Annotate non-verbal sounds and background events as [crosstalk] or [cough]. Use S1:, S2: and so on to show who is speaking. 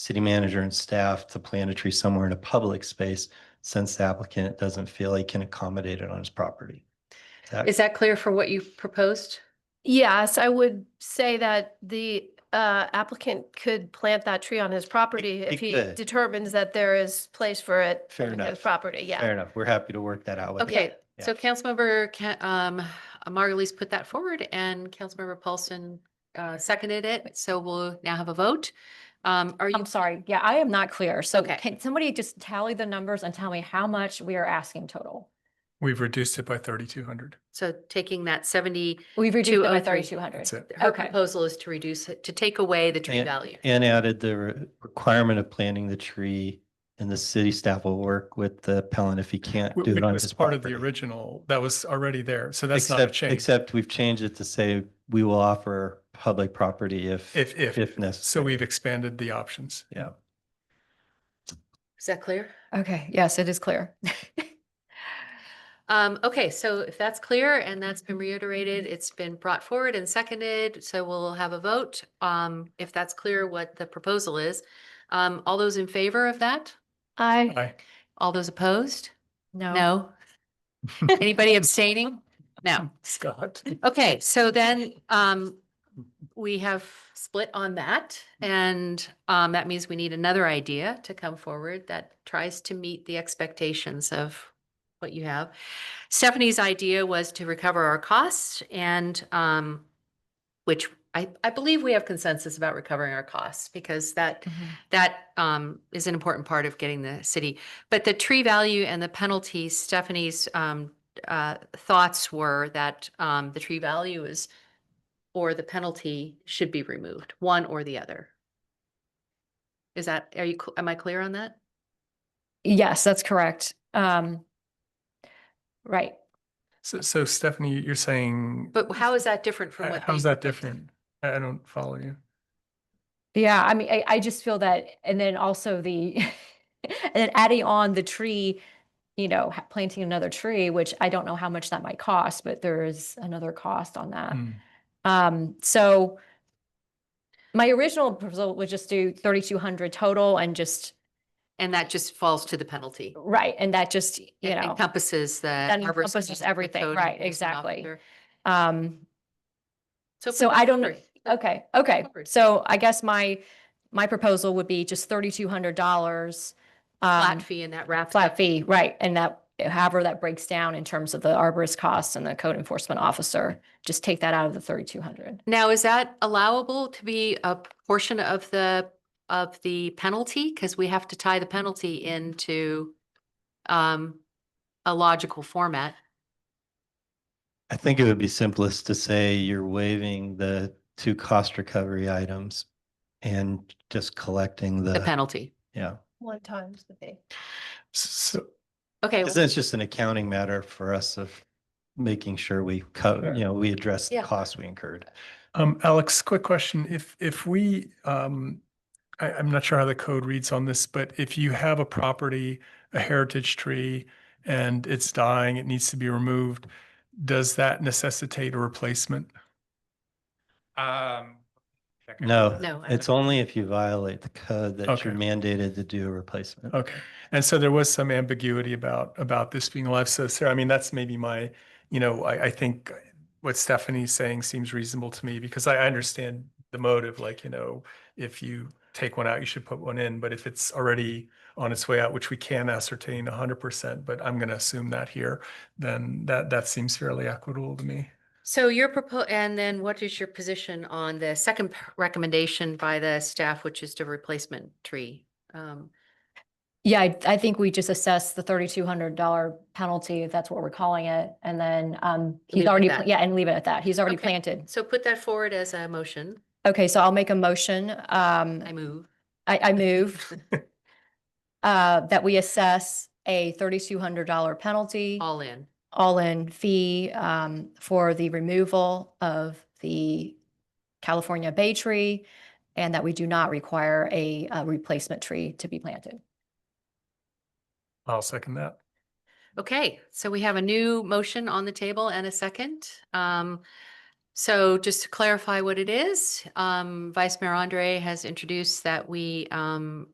S1: city manager and staff to plant a tree somewhere in a public space since the applicant doesn't feel he can accommodate it on his property. That-
S2: Is that clear for what you proposed?
S3: Yes, I would say that the uh, applicant could plant that tree on his property
S1: he
S3: if he
S1: could.
S3: determines that there is place for it.
S1: Fair
S3: on his
S1: enough.
S3: Property,
S1: Fair
S3: yeah.
S1: enough. We're happy to work that out with. him.
S2: Okay,
S1: Yeah.
S2: so Councilmember Ca- um, Margulies put that forward and Councilmember Paulson uh, seconded it. So we'll now have a vote. Um, Are you,
S4: I'm sorry. Yeah, I am not clear. So
S2: Okay.
S4: can somebody just tally the numbers and tell me how much we are asking total?
S5: We've reduced it by thirty-two hundred.
S2: so taking that 70,
S4: We've reduced it by
S2: 203.
S4: thirty-two hundred.
S5: That's it.
S2: her
S4: Okay.
S2: proposal is to reduce, it to take away the tree
S1: And-
S2: value.
S1: And added the re- requirement of planting the tree and the city staff will work with the appellant if he can't do
S5: It
S1: it on
S5: was
S1: his
S5: part of the
S1: property.
S5: original, that was already there. So that's not a
S1: Except,
S5: change.
S1: except we've changed it to say we will offer public property if,
S5: If, if,
S1: if necessary.
S5: so we've expanded the options.
S1: Yeah.
S2: Is that clear?
S4: Okay, yes, it is clear.
S2: Um, okay, so if that's clear and that's been reiterated, it's been brought forward and seconded, so we'll have a vote. Um, if that's clear what the proposal is. Um, all those in favor of that?
S3: I,
S5: Aye.
S2: All those opposed?
S4: No.
S2: No? Anybody abstaining? No.
S5: Scott.
S2: Okay, so then, um, we have split on that and, um, that means we need another idea to come forward that tries to meet the expectations of what you have. Stephanie's idea was to recover our costs and, um, which I, I believe we have consensus about recovering our costs because that
S4: Mhm.
S2: that um is an important part of getting the city. But the tree value and the penalties, Stephanie's um uh thoughts were that um the tree value is or the penalty should be removed, one or the other. Is that, are you, cl- am I clear on that?
S4: Yes, that's correct. Um, right.
S5: So, so Stephanie, you're saying.
S2: But how is that different from
S5: uh,
S2: what?
S5: How's
S2: they-
S5: that different? I I don't follow you.
S4: Yeah, I mean, I, I just feel that, and then also the, [laughs] and then adding on the tree, you know, ha- planting another tree, which I don't know how much that might cost, but there is another cost on that.
S5: Hmm.
S4: Um, so my original proposal was just do thirty-two hundred total and just,
S2: And that just falls to the penalty.
S4: right, and that just, you
S2: It
S4: know,
S2: Encompasses the.
S4: that
S2: arborist,
S4: encompasses
S2: the
S4: everything,
S2: code
S4: right,
S2: enforcement
S4: exactly.
S2: officer.
S4: um,
S2: So. if we
S4: So
S2: go
S4: I don't-
S2: through-
S4: okay, okay.
S2: Covered.
S4: So I guess my, my proposal would be just thirty-two hundred dollars. um,
S2: Flat fee and that wraps.
S4: Flat
S2: up-
S4: fee, right, and that, however that breaks down in terms of the arborist costs and the code enforcement officer, just take that out of the thirty-two hundred.
S2: Now, is that allowable to be a portion of the, of the penalty? Because we have to tie the penalty into um, a logical format.
S1: I think it would be simplest to say you're waiving the two cost recovery items and just collecting
S2: the
S1: the,
S2: penalty.
S1: yeah.
S3: one times the fee.
S5: So,
S2: Okay,
S1: Because it's just an accounting matter for us of making sure we cover, you know, we address the
S2: Yeah.
S1: costs we incurred.
S5: um, Alex, quick question. If, if we, um, I, I'm not sure how the code reads on this, but if you have a property, a heritage tree, and it's dying, it needs to be removed, does that necessitate a replacement?
S6: Um. second.
S1: No.
S2: No, I
S1: It's only if you violate the code that you're
S5: Okay.
S1: mandated to do a replacement.
S5: Okay. And so there was some ambiguity about, about this being alive. So Sarah, I mean, that's maybe my, you know, I, I think what Stephanie's saying seems reasonable to me because I, I understand the motive, like, you know, if you take one out, you should put one in, but if it's already on its way out, which we can ascertain hundred percent, but I'm going to assume that here, then that, that seems fairly equitable to me.
S2: so your proposal, and then what is your position on the second p- recommendation by the staff, which is the replacement tree? Um,
S4: Yeah, I, I think we just assess the thirty-two hundred dollar penalty, if that's what we're calling it, and then, um,
S2: Leave it
S4: he's
S2: at
S4: already,
S2: that.
S4: pla- yeah, and leave it at that. He's already
S2: Okay.
S4: planted.
S2: So put that forward as a motion.
S4: Okay, so I'll make a motion, um,
S2: I move.
S4: I, I move
S2: [laughs]
S4: uh, that we assess a thirty-two hundred dollar penalty.
S2: All in.
S4: all-in fee um, for the removal of the California bay tree and that we do not require a uh, replacement tree to be planted.
S5: I'll second that.
S2: Okay, so we have a new motion on the table and a second. Um, So just to clarify what it is, um, Vice Mayor Andre has introduced that we, um,